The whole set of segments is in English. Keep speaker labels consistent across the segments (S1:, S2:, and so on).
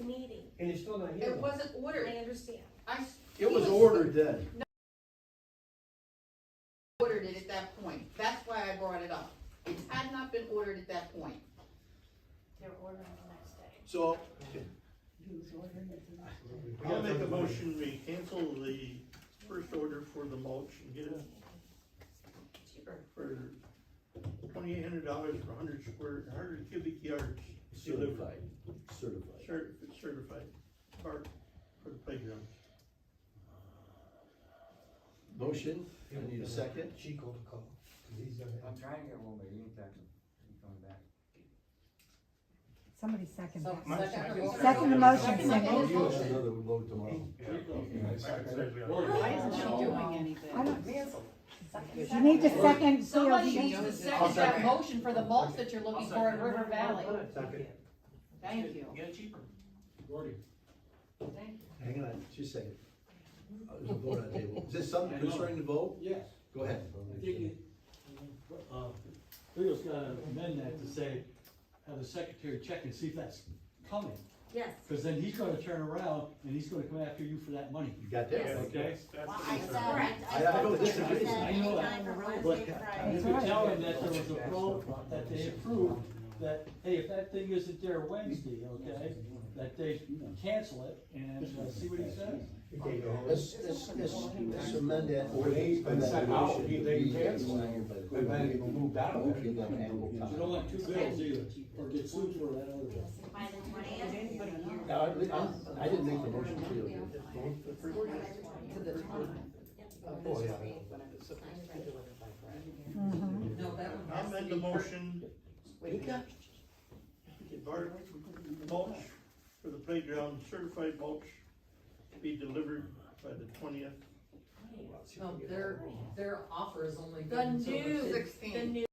S1: and it's still not here.
S2: It wasn't ordered.
S3: I understand.
S2: I s-
S4: It
S2: he
S4: was ordered then.
S2: Ordered it at that point. That's why I brought it up. It had not been ordered at that point.
S3: They're ordering the next day.
S4: So,
S5: I'll make a motion, we cancel the first order for the mulch and get it
S2: Cheaper.
S5: for twenty-eight hundred dollars for hundred square, hundred cubic yards. delivered,
S4: certified, certified.
S5: Cer- Certified, or for the playground.
S4: Motion, I need a second.
S6: Chico to call, 'cause he's done it.
S7: I'm trying to get one, but he ain't got them. He coming back.
S8: Somebody second that.
S2: Second.
S8: Second the motion,
S2: Second
S8: second.
S2: his
S4: You have
S2: motion.
S4: another load tomorrow.
S9: Why
S3: isn't she
S9: doing
S8: I
S9: anything?
S8: don't, you need to second, so
S9: Somebody
S8: you-
S9: needs to
S2: I'll
S9: second that
S2: second.
S9: motion for the mulch that you're looking for in River Valley. Thank you.
S6: Get it cheaper.
S9: Thank you.
S4: Hang on, just a second. Uh, There's a vote on the table. Is this something concerning the vote?
S10: Yes.
S4: Go ahead.
S10: I think it- uh, Leo's gotta amend that to say, have the secretary check and see if that's coming,
S3: Yes.
S10: cause then he's gonna turn around and he's gonna come after you for that money.
S4: You got that?
S10: Okay.
S3: Correct.
S4: I- I don't disagree.
S10: I know that.
S3: Wednesday, Friday.
S10: You could tell him that there was a vote that they approved, that, hey, if that thing isn't there Wednesday, okay, that they cancel it and uh, see what he says.
S4: Let's, let's, let's let's amend that. ordinance, amend that
S6: Second, I'll
S4: motion.
S6: be there, you can.
S4: Okay,
S6: And then even moved out of
S4: Okay,
S6: it.
S4: then handle
S10: You don't want two bills either, or get sued for that other bill.
S3: By the twentieth.
S4: Now, I, I'm- I didn't make the motion for you.
S6: Oh, yeah.
S8: Mhm.
S2: No, that one
S5: I'll
S2: has to
S5: make
S2: be.
S5: the motion,
S2: Wait a minute.
S5: get bar- mulch for the playground, certified mulch, to be delivered by the twentieth.
S9: No, their, their offer is only good
S3: The
S9: until the
S3: new, the
S9: fifth.
S2: Sixteen.
S3: new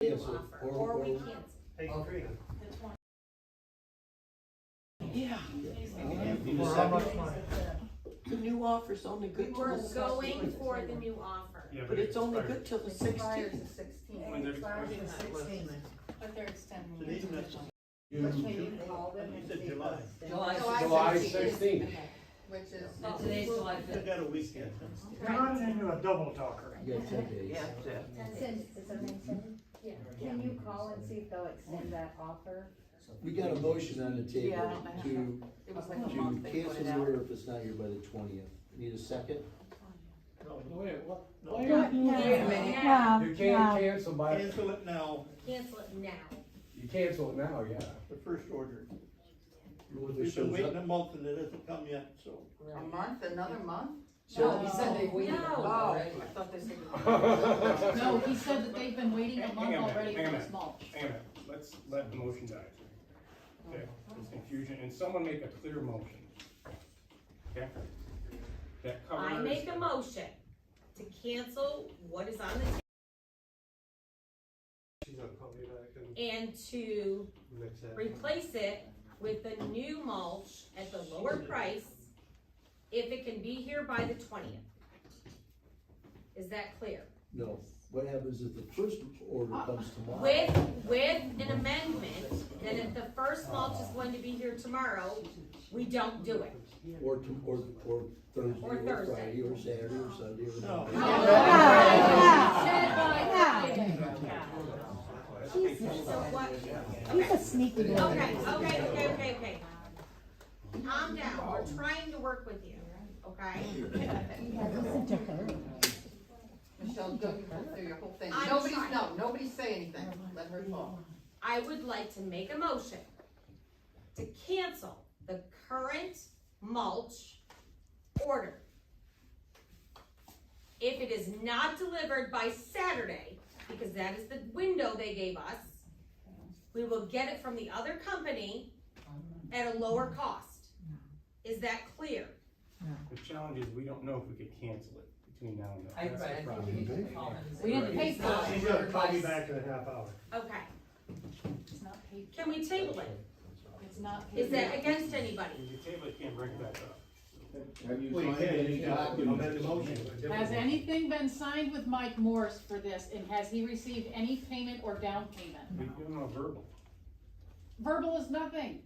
S4: Yes,
S3: offer,
S4: or-
S3: or we
S4: or-
S3: cancel. The twenty.
S4: Need a second?
S11: The new offer's only
S3: We
S11: good till
S3: were
S11: the
S3: going
S11: sixteenth,
S3: for the new offer.
S11: but it's only good till the
S2: It's prior to
S11: sixteenth.
S2: sixteen.
S3: But they're extending.
S5: Today's message. You said July.
S2: July
S9: July sixth.
S6: July
S2: 16th.
S6: sixteenth.
S2: Which is.
S9: And today's July
S5: Still
S9: fifth.
S5: got a weekend.
S3: Right.
S6: into a double talker.
S4: You got ten days.
S3: Can you call and see if they'll extend that offer?
S4: We got a motion on the table to,
S2: It was like a month
S4: to
S2: they
S4: cancel
S2: put it
S4: the
S2: out.
S4: order if it's not here by the twentieth. Need a second?
S7: Oh,
S10: Wait, what?
S5: No,
S10: why
S5: no.
S10: are you doing
S3: Wait a
S10: that?
S3: minute.
S8: No,
S6: You
S8: no.
S6: can't cancel by,
S5: Cancel it now,
S3: Cancel it now.
S6: you cancel it now, yeah.
S5: the first order.
S4: Whether it
S5: We've been
S4: shows
S5: waiting
S4: up.
S5: a month and it hasn't come yet, so.
S2: A month, another month?
S9: No, he said they waited
S3: No.
S9: already.
S2: I thought they said. it
S9: No, he said that they've been waiting a month
S7: Hang on a minute,
S9: already
S7: hang
S9: for
S7: on a
S9: this mulch.
S7: Hang on, let's let the motion die. Okay, there's confusion, and someone make a clear motion. Okay? That covers.
S3: I make a motion to cancel what is on the table
S6: She's not coming back and
S3: and to
S6: mix that.
S3: replace it with the new mulch at the lower price if it can be here by the twentieth. Is that clear?
S4: No, what happens if the first order
S2: Uh,
S4: comes tomorrow?
S3: With, with an amendment, that if the first mulch is going to be here tomorrow, we don't do it.
S4: Or, to- or, or Thursday,
S3: Or
S4: or
S3: Thursday.
S4: Friday, or Saturday, or Sunday, or
S5: No.
S4: Monday.
S3: No, So what,
S8: He's a sneaky little.
S3: Okay, okay, okay, okay, okay. Calm down, we're trying to work with you, okay?
S8: Yeah, listen to her.
S2: Michelle, don't you go through your whole thing.
S3: I'm
S2: Nobody's,
S3: trying.
S2: no, nobody say anything. Let her talk.
S3: I would like to make a motion to cancel the current mulch order. If it is not delivered by Saturday, because that is the window they gave us, we will get it from the other company at a lower cost. Is that clear?
S7: The challenge is, we don't know if we could cancel it between now and then.
S9: I, I
S7: That's the
S9: think
S7: problem.
S9: we need to call him. and say-
S7: We didn't pay
S9: It's not
S7: for it.
S6: She's
S9: ordered
S6: gonna call me
S9: by-
S6: back in a half hour.
S3: Okay,
S9: It's not paid.
S3: can we table it?
S9: It's not paid.
S3: Is that against anybody?
S7: If you table it, you can't bring it back up.
S4: Have you
S5: Well, you
S4: signed
S5: can,
S4: any
S5: you can
S4: documents?
S5: amend the motion.
S9: Has anything been signed with Mike Morse for this, and has he received any payment or down payment?
S7: We give them a verbal.
S9: Verbal is nothing.